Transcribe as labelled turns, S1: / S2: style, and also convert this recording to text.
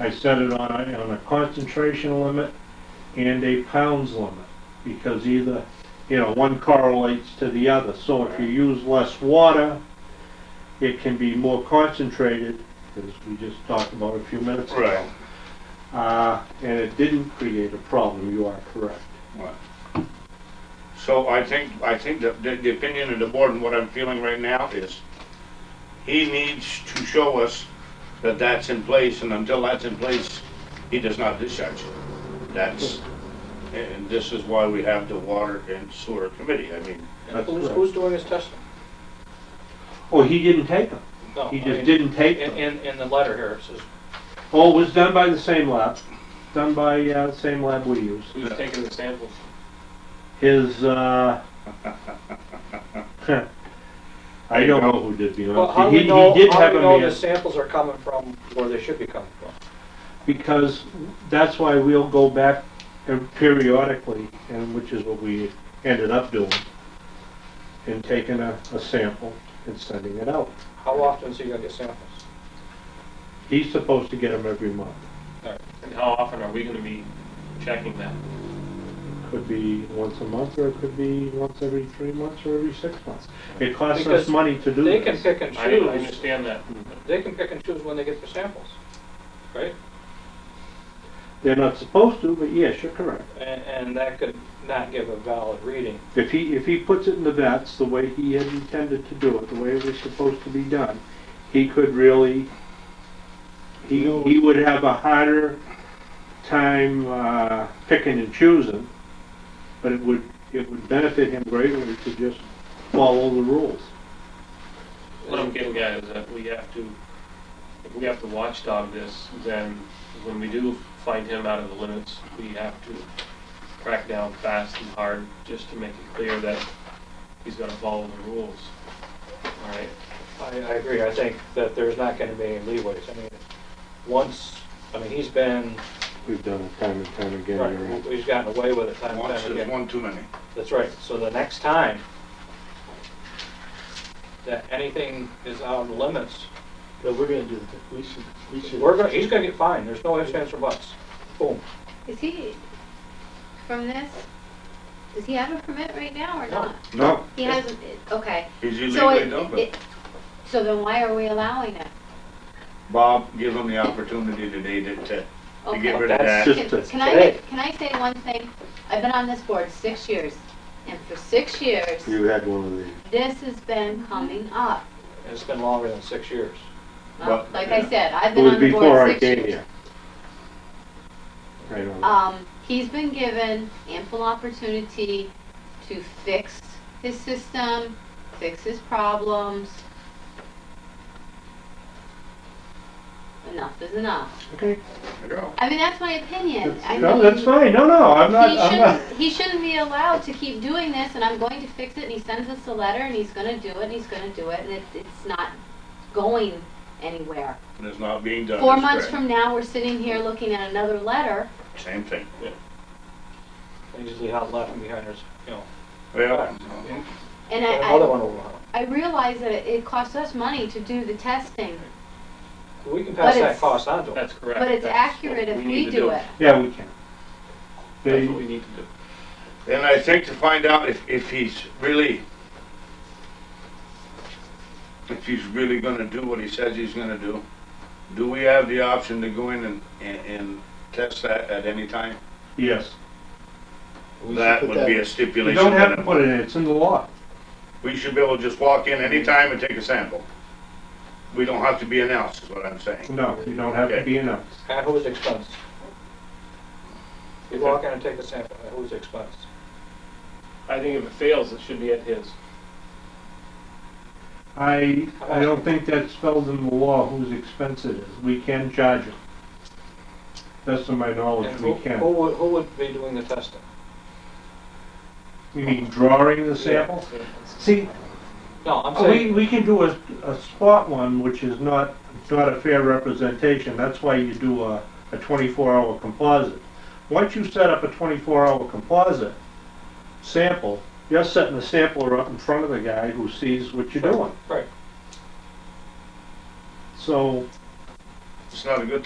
S1: I set it on a, on a concentration limit and a pounds limit, because either, you know, one correlates to the other. So if you use less water, it can be more concentrated, as we just talked about a few minutes ago.
S2: Right.
S1: Uh, and it didn't create a problem, you are correct.
S2: Right. So I think, I think that the, the opinion of the board and what I'm feeling right now is he needs to show us that that's in place and until that's in place, he does not discharge it. That's, and this is why we have the water and sewer committee. I mean,
S1: That's
S3: Who's,
S1: correct.
S3: who's doing his testing?
S1: Oh, he didn't take them.
S3: No,
S1: He
S3: I
S1: just
S3: mean,
S1: didn't take
S3: In,
S1: them.
S3: in, in the letter here, it says,
S1: Oh, it was done by the same lab, done by, uh, the same lab we use.
S4: Who's taking the samples?
S1: His, uh, I don't know who did the
S3: well, how do
S1: He,
S3: we
S1: he
S3: know,
S1: did
S3: how
S1: have
S3: do
S1: a
S3: we know the
S1: man,
S3: samples are coming from where they should be coming from?
S1: because that's why we'll go back and periodically, and which is what we ended up doing, and taking a, a sample and sending it out.
S3: How often is he gonna get samples?
S1: He's supposed to get them every month.
S4: And how often are we gonna be checking that?
S1: Could be once a month, or it could be once every three months, or every six months. It costs us
S3: Because
S1: money to do
S3: They can
S1: this.
S3: pick and
S4: I didn't
S3: choose,
S4: understand that.
S3: they can pick and choose when they get the samples, right?
S1: They're not supposed to, but yes, you're correct.
S3: And, and that could not give a valid reading.
S1: If he, if he puts it in the vets, the way he had intended to do it, the way it was supposed to be done, he could really, he, he would have a harder time, uh, picking and choosing, but it would, it would benefit him greatly to just follow the rules.
S4: What I'm getting at is that we have to, if we have to watchdog this, then when we do find him out of the limits, we have to crack down fast and hard, just to make it clear that he's gonna follow the rules. All right?
S3: I, I agree, I think that there's not gonna be any leeways, I mean, once, I mean, he's been,
S1: We've done it time and time again. you're right.
S3: right, he's gotten away with it time and
S2: once
S3: time
S2: is
S3: again.
S2: one too many.
S3: That's right, so the next time that anything is out of limits,
S5: But we're gonna do the, we should, we should.
S3: we're gonna, he's gonna get fined, there's no ifs, ands, or buts. Boom.
S6: Is he, from this, does he have a permit right now or
S3: No.
S6: not?
S2: No,
S6: He hasn't, okay.
S2: he's
S6: So
S2: illegally
S6: it-
S2: dumping.
S6: it, so then why are we allowing it?
S2: Bob, give him the opportunity today to, to to get
S6: Okay.
S2: rid of
S3: That's
S2: that.
S1: just- to-
S6: Can can I,
S3: Today.
S6: make- can I say one thing? I've been on this board six years, and for six years,
S1: You had one of these.
S6: this has been coming up.
S3: And it's been longer than six years.
S6: Well,
S2: Well,
S6: Like
S2: yeah.
S6: I said, I've
S1: It
S6: been
S1: was
S6: on the
S1: before
S6: board
S1: I
S6: six
S1: came
S6: years.
S1: here. Right on.
S6: Um, he's been given ample opportunity to fix his system, fix his problems. Enough is enough.
S1: Okay.
S2: Go.
S6: I mean, that's my opinion. I
S1: No,
S6: mean,
S1: that's fine. No, no, I'm not,
S6: He
S1: I'm not.
S6: shouldn't, he shouldn't be allowed to keep doing this and I'm going to fix it and he sends us a letter and he's gonna do it and he's gonna do it and it, it's not going anywhere.
S2: And it's not being done.
S6: Four
S2: It's
S6: months
S2: great.
S6: from now, we're sitting here looking at another letter
S2: Same thing.
S3: They usually have left and behind us, you know,
S2: Well,
S6: and Uh, I, I.
S3: another one over.
S6: I realize that it costs us money to do the testing,
S3: We can
S6: But
S3: pass that
S6: it's-
S3: cost on to them.
S4: That's correct.
S6: but it's
S4: That's
S6: accurate
S4: what
S6: if
S4: need
S6: we
S4: to
S6: do it.
S1: Yeah, we can.
S4: That's
S1: They,
S4: what we need to do.
S2: And I think to find out if, if he's really, if he's really gonna do what he says he's gonna do, do we have the option to go in and, and, and test that at any time?
S1: yes.
S5: we should
S2: That
S5: put
S2: would be
S1: You
S2: a stipulation.
S1: don't have
S2: that-
S1: to put it in, it's in the law.
S2: We should be able to just walk in any time and take a sample. We don't have to be announced, is what I'm saying.
S1: No, you don't have to
S2: Okay.
S1: be announced.
S3: At whose expense? You walk in and take a sample, at whose expense?
S4: I think if it fails, it should be at his.
S1: I, I don't think that's spelled in the law whose expense it is. We can charge it. Best of my knowledge,
S3: And
S1: Oh, we
S3: who, who
S1: can.
S3: would, who would be doing the testing?
S1: You mean drawing the sample?
S4: Yeah.
S1: See,
S3: No, I'm
S1: we,
S3: saying,
S1: we can do a, a spot one, which is not, not a fair representation. That's why you do a, a twenty-four hour composite. Once you set up a twenty-four hour composite sample, you're setting the sampler up in front of the guy who sees what you're doing.
S3: right.
S1: So,
S2: It's not a good